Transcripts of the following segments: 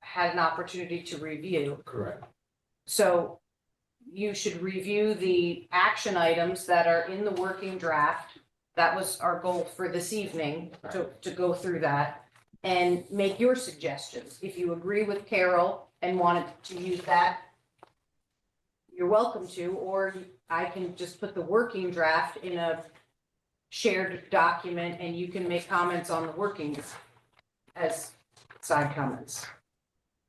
had an opportunity to review. Correct. So you should review the action items that are in the working draft. That was our goal for this evening, to, to go through that and make your suggestions. If you agree with Carol and wanted to use that, you're welcome to, or I can just put the working draft in a shared document and you can make comments on the workings as side comments.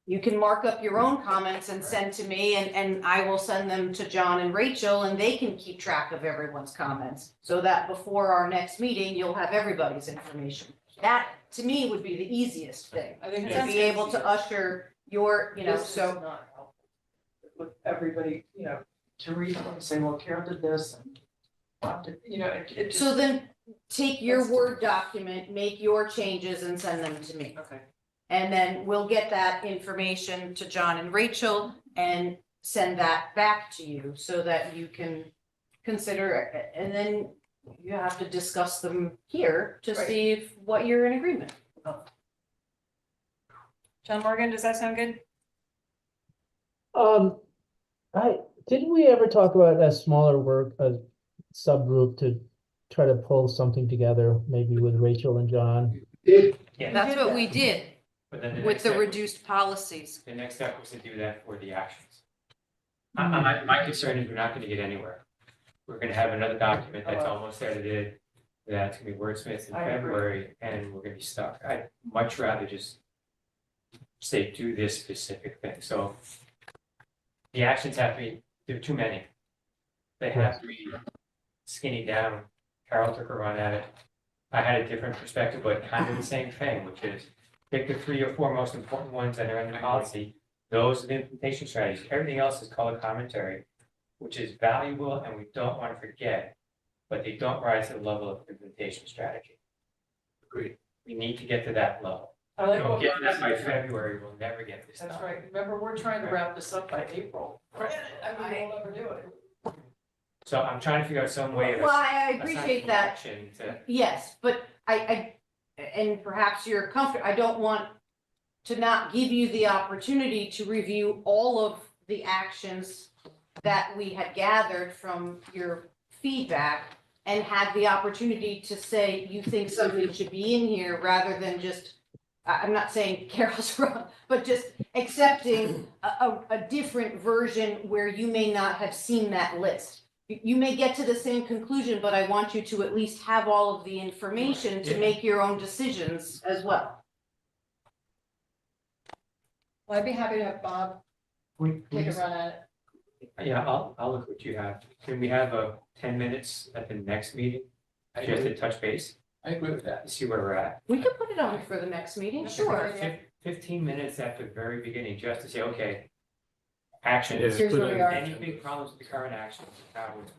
You can mark up your own comments and send to me and, and I will send them to John and Rachel and they can keep track of everyone's comments. So that before our next meeting, you'll have everybody's information. That, to me, would be the easiest thing, I think to that's. be able to usher your, you know, This is so. not helpful. With everybody, you know, to read them and say, well, Carol did this and. Bob did- You know, it, it just. So then take your Let's do Word it. document, make your changes and send them to me. Okay. And then we'll get that information to John and Rachel and send that back to you so that you can consider it. And then you have to discuss them here to Right. see if what you're in agreement. John Morgan, does that sound good? Um, I, didn't we ever talk about a smaller work, a subgroup to try to pull something together, maybe with Rachel and John? That's what we did But then the next with the step- reduced policies. The next step was to do that for the actions. My, my, my concern is we're not gonna get anywhere. We're gonna have another document that's Uh-huh. Hello. almost edited, that's gonna be wordsmiths in I agree. February, and we're gonna be stuck. I'd much rather just say, do this specific thing, so the actions have to be, there are too many. They have to be skinny down. Carol took a run at it. I had a different perspective, but kind of the same thing, which is pick the three or four most important ones that are in the policy. Those are the implementation strategies. Everything else is color commentary, which is valuable and we don't want to forget, but they don't rise to the level of implementation strategy. Agreed. We need to get to that level. I like Don't what. get to that by Rhonda's doing. February, we'll never get this done. That's right. Remember, we're trying to wrap this up by April. I mean, we'll never do it. So I'm trying to figure out some way of. Well, I I assigning appreciate that. action to- Yes, but I, I, and perhaps you're comfortable, I don't want to not give you the opportunity to review all of the actions that we had gathered from your feedback and have the opportunity to say you think something should be in here rather than just, I, I'm not saying Carol's wrong, but just accepting a, a, a different version where you may not have seen that list you- you may get to the same conclusion, but I want you to at least have all of the information to Yeah. make your own decisions as well. Well, I'd be happy to have Bob We- we take a just- run at it. Yeah, I'll, I'll look what you have. Can we have a ten minutes at the next meeting? I Just agree, to touch base, I agree with that. see where we're at. We could put it on for the next meeting, That's sure. great. Fif- Fifteen minutes at the very beginning, just to say, okay, action. It is. Here's where we are. Any big problems with the current actions, how it's.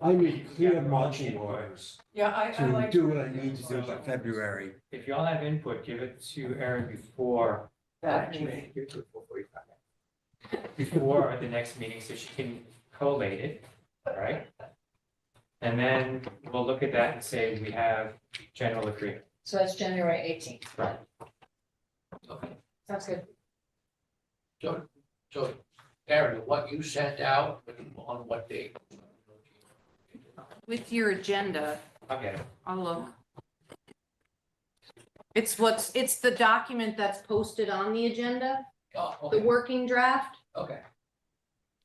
I need clear marching orders Yeah, I, I to like. do what I need to do by February. If y'all have input, give it to Aaron before, That meeting. actually, give it to her before we find out. Before the next meeting, so she can collate it, all right? And then we'll look at that and say, we have general agreement. So that's January eighteenth. Right. Sounds good. So, so Aaron, what you sent out on what date? With your agenda, I'll get it. I'll look. It's what's, it's the document that's posted on the agenda, Oh, the okay, working draft. okay.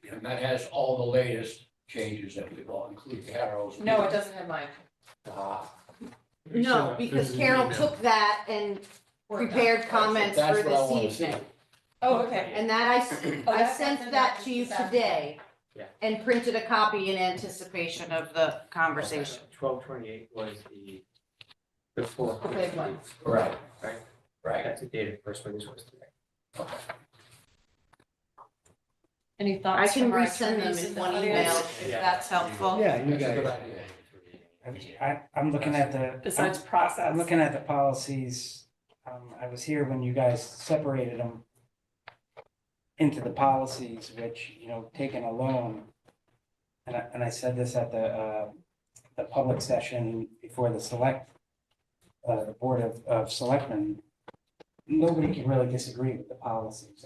And that has all the latest changes that we've all, including Carol's. No, it doesn't have mine. Ah, No, because Carol took that and Worked out. prepared comments That's for what I this wanna see. evening. Oh, okay. And that I s- Oh, I, that's- sent that's that to in you the- today. Yeah. And printed a copy in anticipation of the conversation. Twelve twenty-eight was the, the fourth. Big one. right, Right, right. that's the date of the first one, this was today. Any I thoughts? can from our resend them attorneys in the one audience? email if that's helpful. Yeah, you That's a good guys, idea. I, I'm looking at the. Besides I'm- process. I'm looking at the policies, um, I was here when you guys separated them into the policies, which, you know, taken alone. And I, and I said this at the, uh, the public session before the select, uh, the Board of, of Selectmen. nobody can really disagree with the policies.